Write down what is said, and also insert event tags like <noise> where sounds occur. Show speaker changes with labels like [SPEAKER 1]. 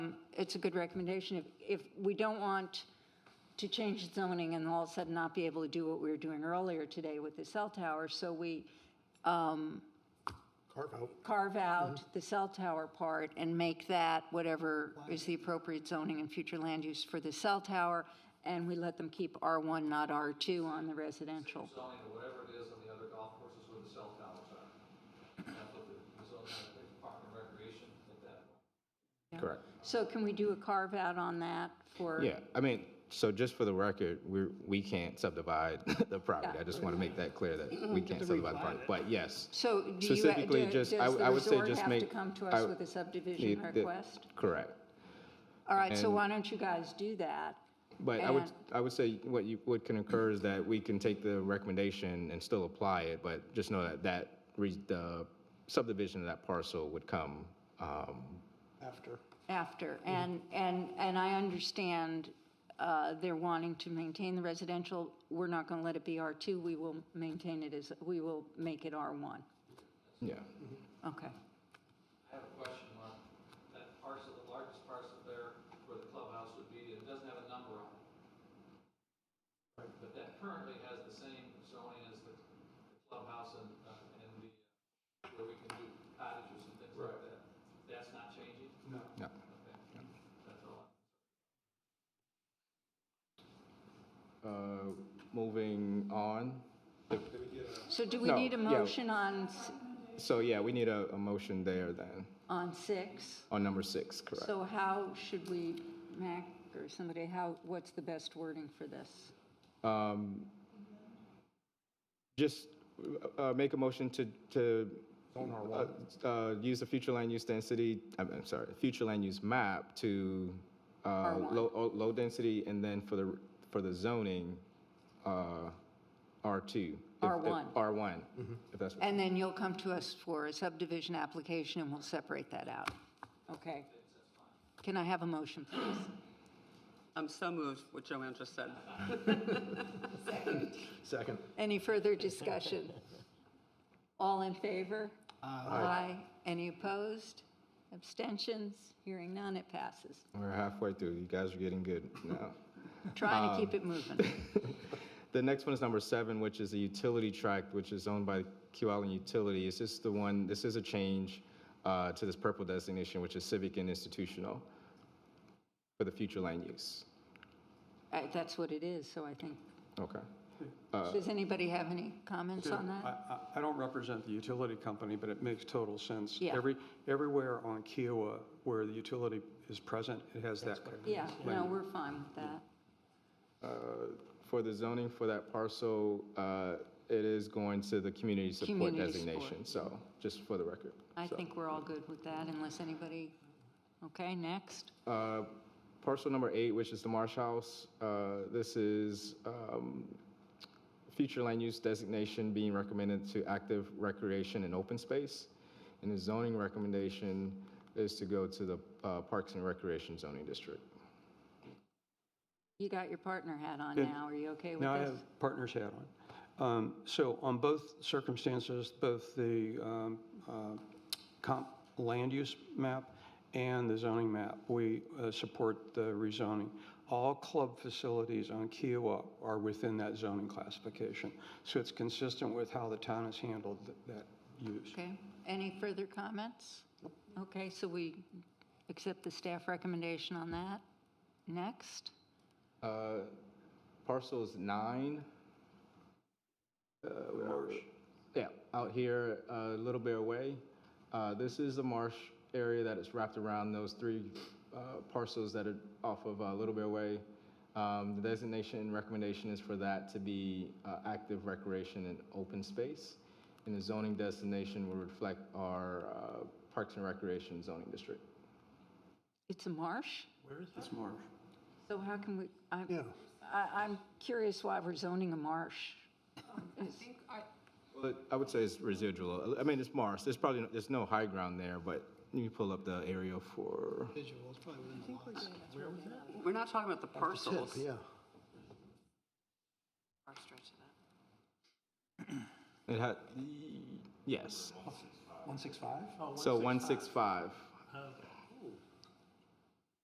[SPEAKER 1] it's a good recommendation. If, if we don't want to change the zoning and all of a sudden not be able to do what we were doing earlier today with the cell tower, so we
[SPEAKER 2] carve out.
[SPEAKER 1] carve
[SPEAKER 3] Mm-hmm.
[SPEAKER 1] out the cell tower part and make that whatever is the appropriate zoning and future land use for the cell tower, and we let them keep R1, not R2 on the residential.
[SPEAKER 4] Selling or whatever it is on the other golf courses where the cell towers are. That's what the, the zone, the park and recreation, like that.
[SPEAKER 3] Correct.
[SPEAKER 1] So can we do a carve out on that for?
[SPEAKER 3] Yeah, I mean, so just for the record, we're, we can't subdivide <laughs> the property. I just want to make that clear that
[SPEAKER 1] Mm-hmm.
[SPEAKER 3] we can't subdivide the property. But yes.
[SPEAKER 1] So do you,
[SPEAKER 3] Specifically,
[SPEAKER 1] do- does
[SPEAKER 3] just-
[SPEAKER 1] the
[SPEAKER 3] I- I would say
[SPEAKER 1] resort
[SPEAKER 3] just
[SPEAKER 1] have to
[SPEAKER 3] make-
[SPEAKER 1] come to
[SPEAKER 3] I-
[SPEAKER 1] us with a subdivision
[SPEAKER 3] It- the-
[SPEAKER 1] request?
[SPEAKER 3] Correct.
[SPEAKER 1] All right, so
[SPEAKER 3] and-
[SPEAKER 1] why don't you guys do that?
[SPEAKER 3] But I would,
[SPEAKER 1] And-
[SPEAKER 3] I would say what you, what can occur is that we can take the recommendation and still apply it, but just know that that, re- the subdivision of that parcel would come, um,
[SPEAKER 2] after.
[SPEAKER 1] After, and, and, and I understand uh, they're wanting to maintain the residential. We're not going to let it be R2, we will maintain it as, we will make it R1.
[SPEAKER 3] yeah.
[SPEAKER 1] Okay.
[SPEAKER 4] I have a question on that parcel, the largest parcel there where the clubhouse would be, it doesn't have a number on it. But that currently has the same zoning as the clubhouse and, uh, and the, where we can do cottages and things like that. That's not changing? No.
[SPEAKER 3] No.
[SPEAKER 4] Okay, that's all.
[SPEAKER 3] Uh, Moving on.
[SPEAKER 1] So do we
[SPEAKER 3] No,
[SPEAKER 1] need a
[SPEAKER 3] yeah.
[SPEAKER 1] motion on, s-
[SPEAKER 3] So yeah, we need a, a motion there then,
[SPEAKER 1] on six?
[SPEAKER 3] on number six, correct?
[SPEAKER 1] So how should we, Mac or somebody, how, what's the best wording for this?
[SPEAKER 3] Um, Just uh, make a motion to, to uh, uh, use the future land use density, I'm I'm sorry, future land use map to uh,
[SPEAKER 1] R1.
[SPEAKER 3] low, oh, low density, and then for the, for the zoning, uh, R2. if- if-
[SPEAKER 1] R1.
[SPEAKER 3] R1, if that's,
[SPEAKER 1] And then you'll come to us for a subdivision application, and we'll separate that out. Okay. Can I have a motion, please?
[SPEAKER 5] I'm so moved what Joanne just said.
[SPEAKER 2] Second.
[SPEAKER 1] Any further discussion? All in favor? Aye. Any opposed? Abstentions? Hearing none, it passes.
[SPEAKER 3] we're halfway through, you guys are getting good <laughs> now.
[SPEAKER 1] Trying to keep
[SPEAKER 6] Um.
[SPEAKER 1] it moving.
[SPEAKER 3] The next one is number seven, which is the utility tract, which is owned by Q Island Utility. Is this the one, this is a change uh, to this purple designation, which is civic and institutional for the future land use.
[SPEAKER 1] Uh, That's what it is, so I think.
[SPEAKER 3] Okay.
[SPEAKER 1] Does anybody have any comments on
[SPEAKER 6] Uh. I,
[SPEAKER 1] that?
[SPEAKER 6] I- I don't represent the utility company, but it makes total sense.
[SPEAKER 1] Yeah.
[SPEAKER 6] Every, everywhere on Kiowa where the utility is present, it has that.
[SPEAKER 1] Yeah, no, we're fine with that.
[SPEAKER 3] Uh, For the zoning for that parcel, uh, it is going to the community support
[SPEAKER 1] Community support.
[SPEAKER 3] designation. So just for the record.
[SPEAKER 1] I
[SPEAKER 3] So,
[SPEAKER 1] think we're all good with that unless anybody, okay, next.
[SPEAKER 3] uh, Parcel number eight, which is the Marsh House, uh, this is um, future land use designation being recommended to active recreation and open space. And the zoning recommendation is to go to the uh, Parks and Recreation zoning district.
[SPEAKER 1] You got your partner hat on now, are you okay with
[SPEAKER 6] Now I
[SPEAKER 1] this?
[SPEAKER 6] have partner's hat on. Um, So on both circumstances, both the um, uh, comp land use map and the zoning map, we uh, support the rezoning. All club facilities on Kiowa are within that zoning classification. So it's consistent with how the town has handled th- that use.
[SPEAKER 1] Okay, any further comments? Okay, so we accept the staff recommendation on that. Next,
[SPEAKER 3] Uh, Parcel is nine.
[SPEAKER 6] Marsh.
[SPEAKER 3] Yeah, out here, a little bit away. Uh, This is a marsh area that is wrapped around those three uh, parcels that are off of uh, a Little Bear Way. Um, The designation and recommendation is for that to be uh, active recreation and open space. And the zoning designation will reflect our uh, Parks and Recreation zoning district.
[SPEAKER 1] it's a marsh,
[SPEAKER 6] It's Marsh.
[SPEAKER 1] so how can we,
[SPEAKER 2] Yeah.
[SPEAKER 1] I'm, I- I'm curious why we're zoning a marsh.
[SPEAKER 3] Well, I would say it's residual. I mean, it's marsh. There's probably, there's no high ground there, but you pull up the area for.
[SPEAKER 2] Visuals, probably within the lots. Where was that?
[SPEAKER 5] We're not talking about the parcels.
[SPEAKER 2] Tip, yeah.
[SPEAKER 5] Our stretch of that.
[SPEAKER 3] It had, yes.
[SPEAKER 2] Oh, One six five?
[SPEAKER 3] So 165.